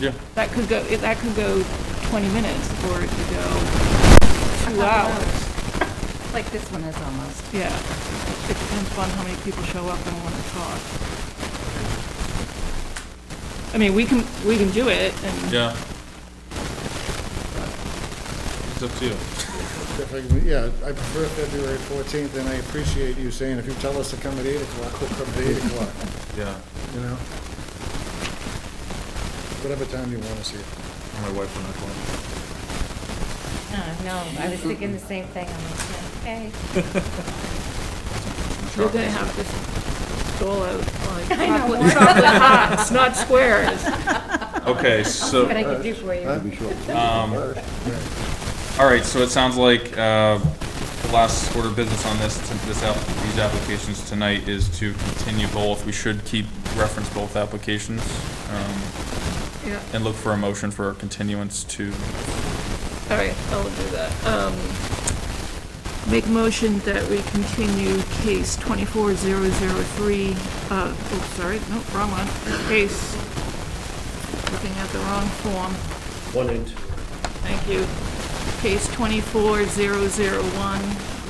Yeah. That could go, it- that could go 20 minutes, or it could go two hours. Like this one is almost. Yeah, it depends upon how many people show up and want to talk. I mean, we can, we can do it, and. Yeah. It's up to you. If I can- Yeah, I prefer February 14th, and I appreciate you saying, if you tell us to come at 8 o'clock, we'll come at 8 o'clock, Yeah. you know? Whatever time you want to see it. My wife will not come. Uh, no, I was thinking the same thing. I'm like, okay. You're gonna have to stall out like I know, chocolate, more chocolate hearts, not squares. Okay, I'll see so, what I can do for you. Huh? um, all right, so it sounds like, uh, the last order of business on this, to- this app, these applications tonight is to continue both. We should keep, reference both applications, um, Yeah, and look for a motion for a continuance to, all right, I'll do that. Um, Make motion that we continue case 24003, uh, oh, sorry, no, wrong one. Case, looking at the wrong form, One and two. thank you. Case 24001,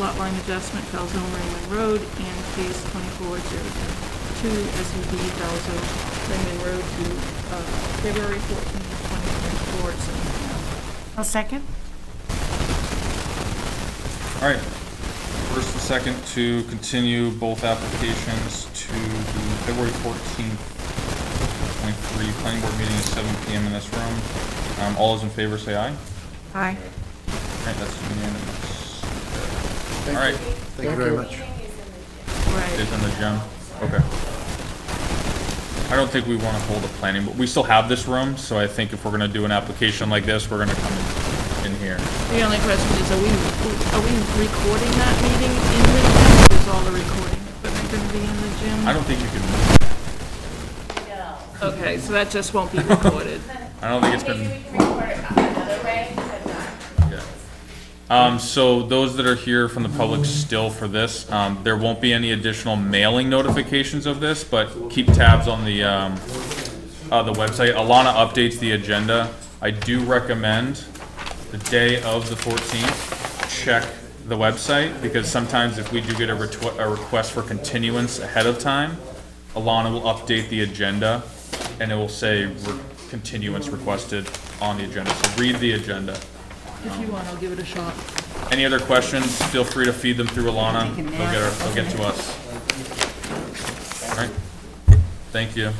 lot line adjustment, Falzone Raymond Road, and case 24002, SUV Falzone Raymond Road to uh, February 14th, 2024, at 7 p.m. I'll second. all right. First and second, to continue both applications to the February fourteenth, twenty-three, planning board meeting at seven PM in this room. Um, all those in favor say aye. Aye. All right, that's unanimous. All Thank right, you. Thank you very much. Right. it's in the gym, okay. I don't think we wanna hold a planning, but we still have this room, so I think if we're gonna do an application like this, we're gonna come in here. The only question is, are we, are we recording that meeting in the gym? Is all the recording equipment going to be in the gym? I don't think you can, move. Okay, so that just won't be recorded. I don't think it's been. Maybe we can record it another way, uh, but not. Yeah. Um, so those that are here from the public still for this, um, there won't be any additional mailing notifications of this, but keep tabs on the, um, uh, the website. Alana updates the agenda. I do recommend the day of the fourteenth, check the website, because sometimes if we do get a retwe- a request for continuance ahead of time, Alana will update the agenda, and it will say re- continuance requested on the agenda. So read the agenda. If you want, I'll give it a shot. Any other questions, feel free to feed them through Alana. They'll get, her- they'll get to us. All right. Thank you.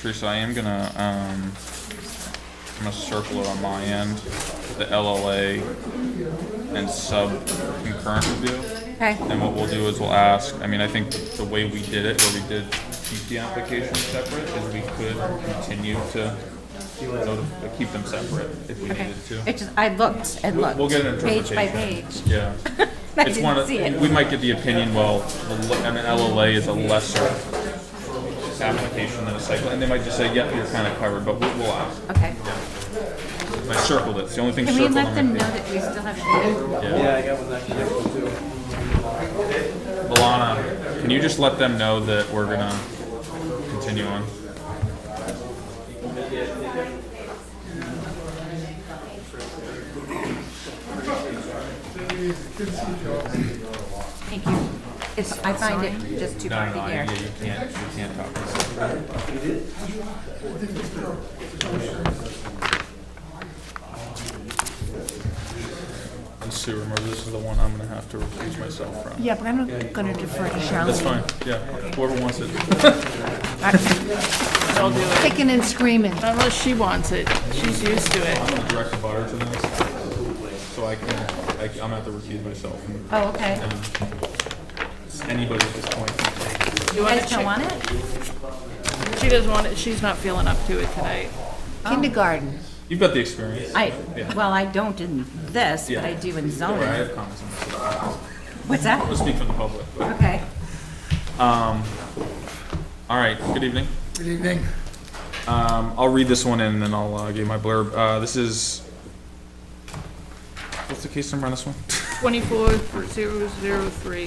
Teresa, I am gonna, um, I'm gonna circle it on my end, the LLA and sub concurrent review. Okay. And what we'll do is we'll ask, I mean, I think the way we did it, where we did keep the applications separate, is we could continue to notif- uh, keep them separate if we Okay. needed to. It just, I looked and We'll- looked. We'll get an Page interpretation. by page. Yeah. I It's one didn't of, see we it. might get the opinion, well, the l- I mean, LLA is a lesser application than a site plan, and they might just say, yep, you're kind of covered, but we'll, we'll ask. Okay. I circled it, it's the only thing Can we circled let on them my know page. that we still have? Yeah, I got one that Alana, can you just let them know that we're gonna continue on? Thank you. It's, I find it just too No, hard no, no, to yeah, hear. you can't, you can't talk. And Sue, remember, this is the one I'm gonna have to recuse myself from. Yeah, but I'm not gonna defer to That's Charlene. fine, yeah, whoever wants it. I'll do it. Kicking and screaming. Unless she wants it. She's used to it. I'm gonna direct the butter to them, so I can, I, I'm gonna have to recuse myself. and- Oh, okay. It's Anybody at this point can take. You You want guys don't want it? it? She doesn't want it. She's not feeling up to it tonight. Oh. Kindergarten. You've got the experience. I, Yeah. well, I don't in this, but I do in Don't worry, I zoning. have comments. on this. I What's that? don't speak for the public. but- Okay. All right, good evening. Good evening. Um, I'll read this one in and then I'll, uh, give my blurb. Uh, this is, what's the case number on this one? twenty-four zero zero three.